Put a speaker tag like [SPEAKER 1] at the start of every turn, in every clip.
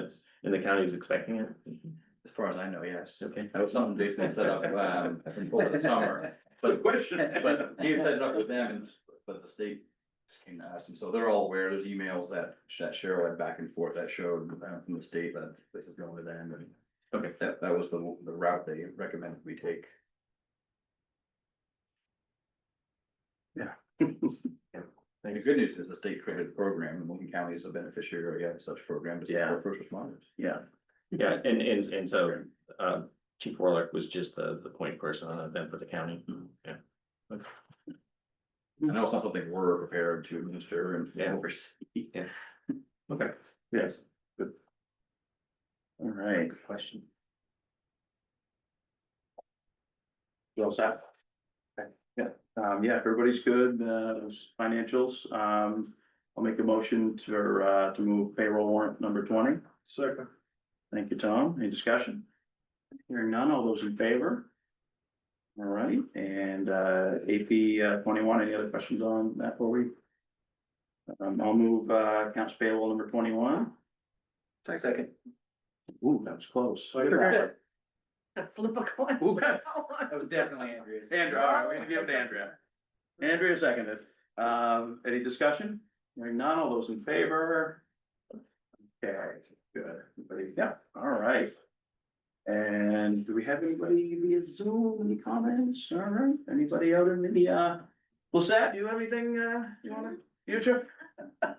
[SPEAKER 1] that's, and the county's expecting it.
[SPEAKER 2] As far as I know, yes.
[SPEAKER 1] Okay.
[SPEAKER 2] That was something Jason set up, um, over the summer, but,
[SPEAKER 1] question.
[SPEAKER 2] but he had set it up with them, and but the state just came to us, and so they're all aware, there's emails that, that Cheryl had back and forth that showed, uh, from the state that this is going to them, and
[SPEAKER 1] Okay.
[SPEAKER 2] that, that was the, the route they recommended we take. And the good news is the state created a program, and Logan County is a beneficiary of such program to
[SPEAKER 1] Yeah.
[SPEAKER 2] support first responders.
[SPEAKER 1] Yeah, yeah, and, and, and so, uh, Chief Warlock was just the, the point person on that event for the county.
[SPEAKER 2] Mm-hmm.
[SPEAKER 1] Yeah,
[SPEAKER 2] I know it's not something we're prepared to administer and
[SPEAKER 1] Yeah.
[SPEAKER 2] oversee.
[SPEAKER 1] okay, yes,
[SPEAKER 3] All right,
[SPEAKER 1] good question.
[SPEAKER 3] you all set? Okay, Yeah, um, yeah, if everybody's good, uh, those financials, um, I'll make a motion to, uh, to move payroll warrant number twenty. Second. Thank you, Tom. Any discussion? Hearing none, all those in favor? All right, and, uh, AP uh, twenty-one, any other questions on that before we? Um, I'll move, uh, accounts payable number twenty-one.
[SPEAKER 2] Second.
[SPEAKER 3] Ooh, that was close.
[SPEAKER 4] Flip a coin.
[SPEAKER 3] Okay.
[SPEAKER 2] That was definitely Andrea's.
[SPEAKER 3] Andrew, all right, we're gonna give it to Andrea. Andrea seconded. Um, any discussion? Hearing none, all those in favor? Okay, good, everybody, yeah, all right. And do we have anybody via Zoom, any comments, all right, anybody out in the, uh, Lissette, do you have anything, uh, you wanna, future? I'm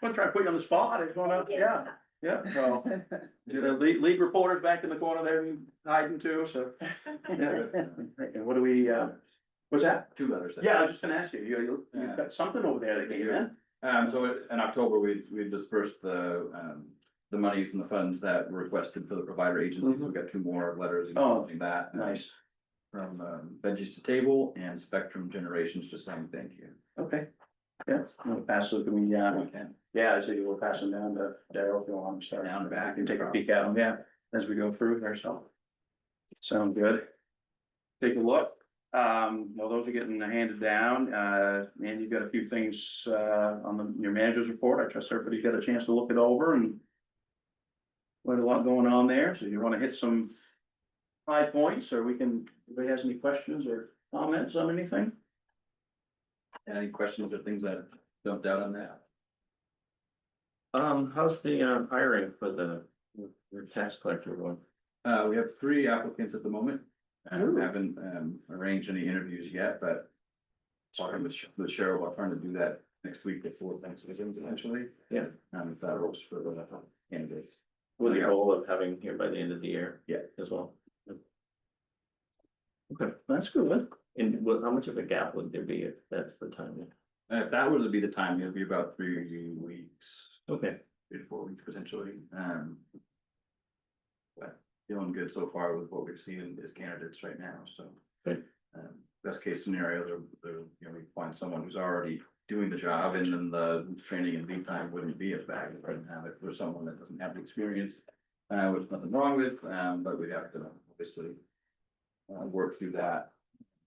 [SPEAKER 3] gonna try to put you on the spot, I just wanna, yeah, yeah, well, you know, lead, lead reporters back in the corner there hiding too, so, yeah. And what do we, uh, what's that?
[SPEAKER 2] Two letters. there.
[SPEAKER 3] Yeah, I was just gonna ask you, you, you-
[SPEAKER 2] Yeah.
[SPEAKER 3] you've got something over there that came in.
[SPEAKER 2] Um, so in October, we, we dispersed the, um, the monies and the funds that were requested for the provider
[SPEAKER 3] Mm-hmm.
[SPEAKER 2] agencies. We've got two more letters
[SPEAKER 3] Oh.
[SPEAKER 2] acknowledging that. um,
[SPEAKER 3] Nice,
[SPEAKER 2] From, um, Veggies to Table and Spectrum Generations, just saying thank you.
[SPEAKER 3] okay. Yeah, I'm gonna pass it, I mean, yeah,
[SPEAKER 2] We can.
[SPEAKER 3] yeah, so you will pass them down to Daryl if you want, start
[SPEAKER 2] Down
[SPEAKER 3] down
[SPEAKER 2] the
[SPEAKER 3] back
[SPEAKER 2] back.
[SPEAKER 3] and take a peek at them, yeah, as we go through there, so. Sound good. Take a look, um, well, those are getting handed down, uh, and you've got a few things, uh, on the, your manager's report, I trust everybody got a chance to look it over and. Quite a lot going on there, so you wanna hit some high points, or we can, anybody has any questions or comments on anything?
[SPEAKER 2] Any questions or things that jumped out on that?
[SPEAKER 1] Um, how's the, uh, hiring for the, your tax collector one?
[SPEAKER 2] Uh, we have three applicants at the moment. I
[SPEAKER 3] Ooh.
[SPEAKER 2] haven't, um, arranged any interviews yet, but talking with Sh- with Cheryl, I'm trying to do that next week before Thanksgiving potentially.
[SPEAKER 1] Yeah.
[SPEAKER 2] Um, if that works for the candidates.
[SPEAKER 1] With the goal of having here by the end of the year.
[SPEAKER 2] Yeah.
[SPEAKER 1] As well.
[SPEAKER 3] That's good.
[SPEAKER 1] And what, how much of a gap would there be if that's the timing?
[SPEAKER 2] Uh, If that were to be the time, it'd be about three weeks,
[SPEAKER 1] Okay,
[SPEAKER 2] three to four weeks potentially, um. But feeling good so far with what we've seen as candidates right now, so.
[SPEAKER 1] Good.
[SPEAKER 2] Um, best case scenario, they're, they're, you know, we find someone who's already doing the job and then the training and lead time wouldn't be as bad if we didn't have it for someone that doesn't have the experience. Uh, which nothing wrong with, um, but we'd have to obviously. Uh, work through that,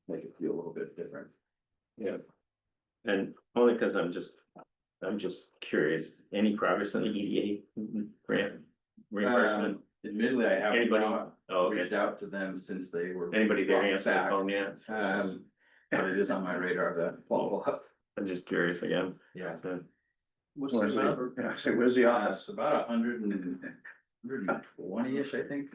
[SPEAKER 2] make it feel a little bit different.
[SPEAKER 1] and only because I'm just, I'm just curious, any progress on the EDA grant reimbursement?
[SPEAKER 2] Um, Admittedly, I haven't.
[SPEAKER 1] Anybody?
[SPEAKER 2] gone-
[SPEAKER 1] Oh,
[SPEAKER 2] reached
[SPEAKER 1] okay,
[SPEAKER 2] out to them since they were.
[SPEAKER 1] anybody there
[SPEAKER 2] brought
[SPEAKER 1] answer the
[SPEAKER 2] back.
[SPEAKER 1] phone yet?
[SPEAKER 2] Um, but it is on my radar to follow up.
[SPEAKER 1] I'm just curious again.
[SPEAKER 2] Yeah.
[SPEAKER 1] Uh,
[SPEAKER 3] What's
[SPEAKER 2] Where's the-
[SPEAKER 3] Yeah, so where's the
[SPEAKER 2] It's
[SPEAKER 3] office?
[SPEAKER 2] about a hundred and, hundred and twenty-ish, I think.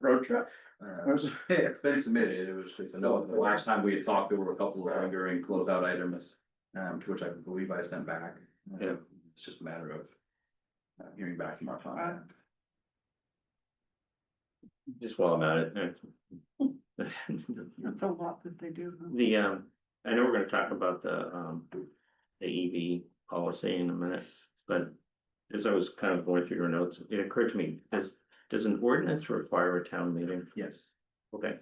[SPEAKER 3] Road trip?
[SPEAKER 2] Uh,
[SPEAKER 3] Where's-
[SPEAKER 2] It's been submitted, it was, just a no, the last time we had talked, there were a couple of lingering closeout items, um, to which I believe I sent back. Uh,
[SPEAKER 1] Yeah.
[SPEAKER 2] It's just a matter of uh, hearing back from our client.
[SPEAKER 3] Uh,
[SPEAKER 1] Just while I'm at it. uh,
[SPEAKER 4] That's a lot that they do. huh?
[SPEAKER 1] The, um, I know we're gonna talk about the, um, the EV policy in a minute, but. As I was kind of going through your notes, it occurred to me, does, does an ordinance require a town meeting?
[SPEAKER 2] Yes,
[SPEAKER 1] Okay,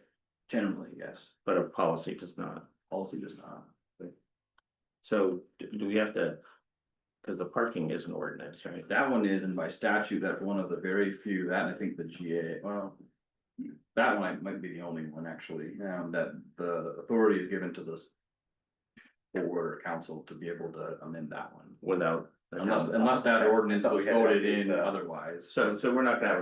[SPEAKER 2] generally, yes,
[SPEAKER 1] but a policy does not.
[SPEAKER 2] policy does not.
[SPEAKER 1] So do do we have to? Cause the parking is an ordinance, right?
[SPEAKER 2] That one is, and by statute, that one of the very few, that and I think the GA, well. That one might be the only one actually, um, that the authority is given to this. Board or council to be able to amend that one.
[SPEAKER 1] Without Oh,
[SPEAKER 2] unless, unless that ordinance was voted in otherwise.
[SPEAKER 3] So, so we're not gonna have a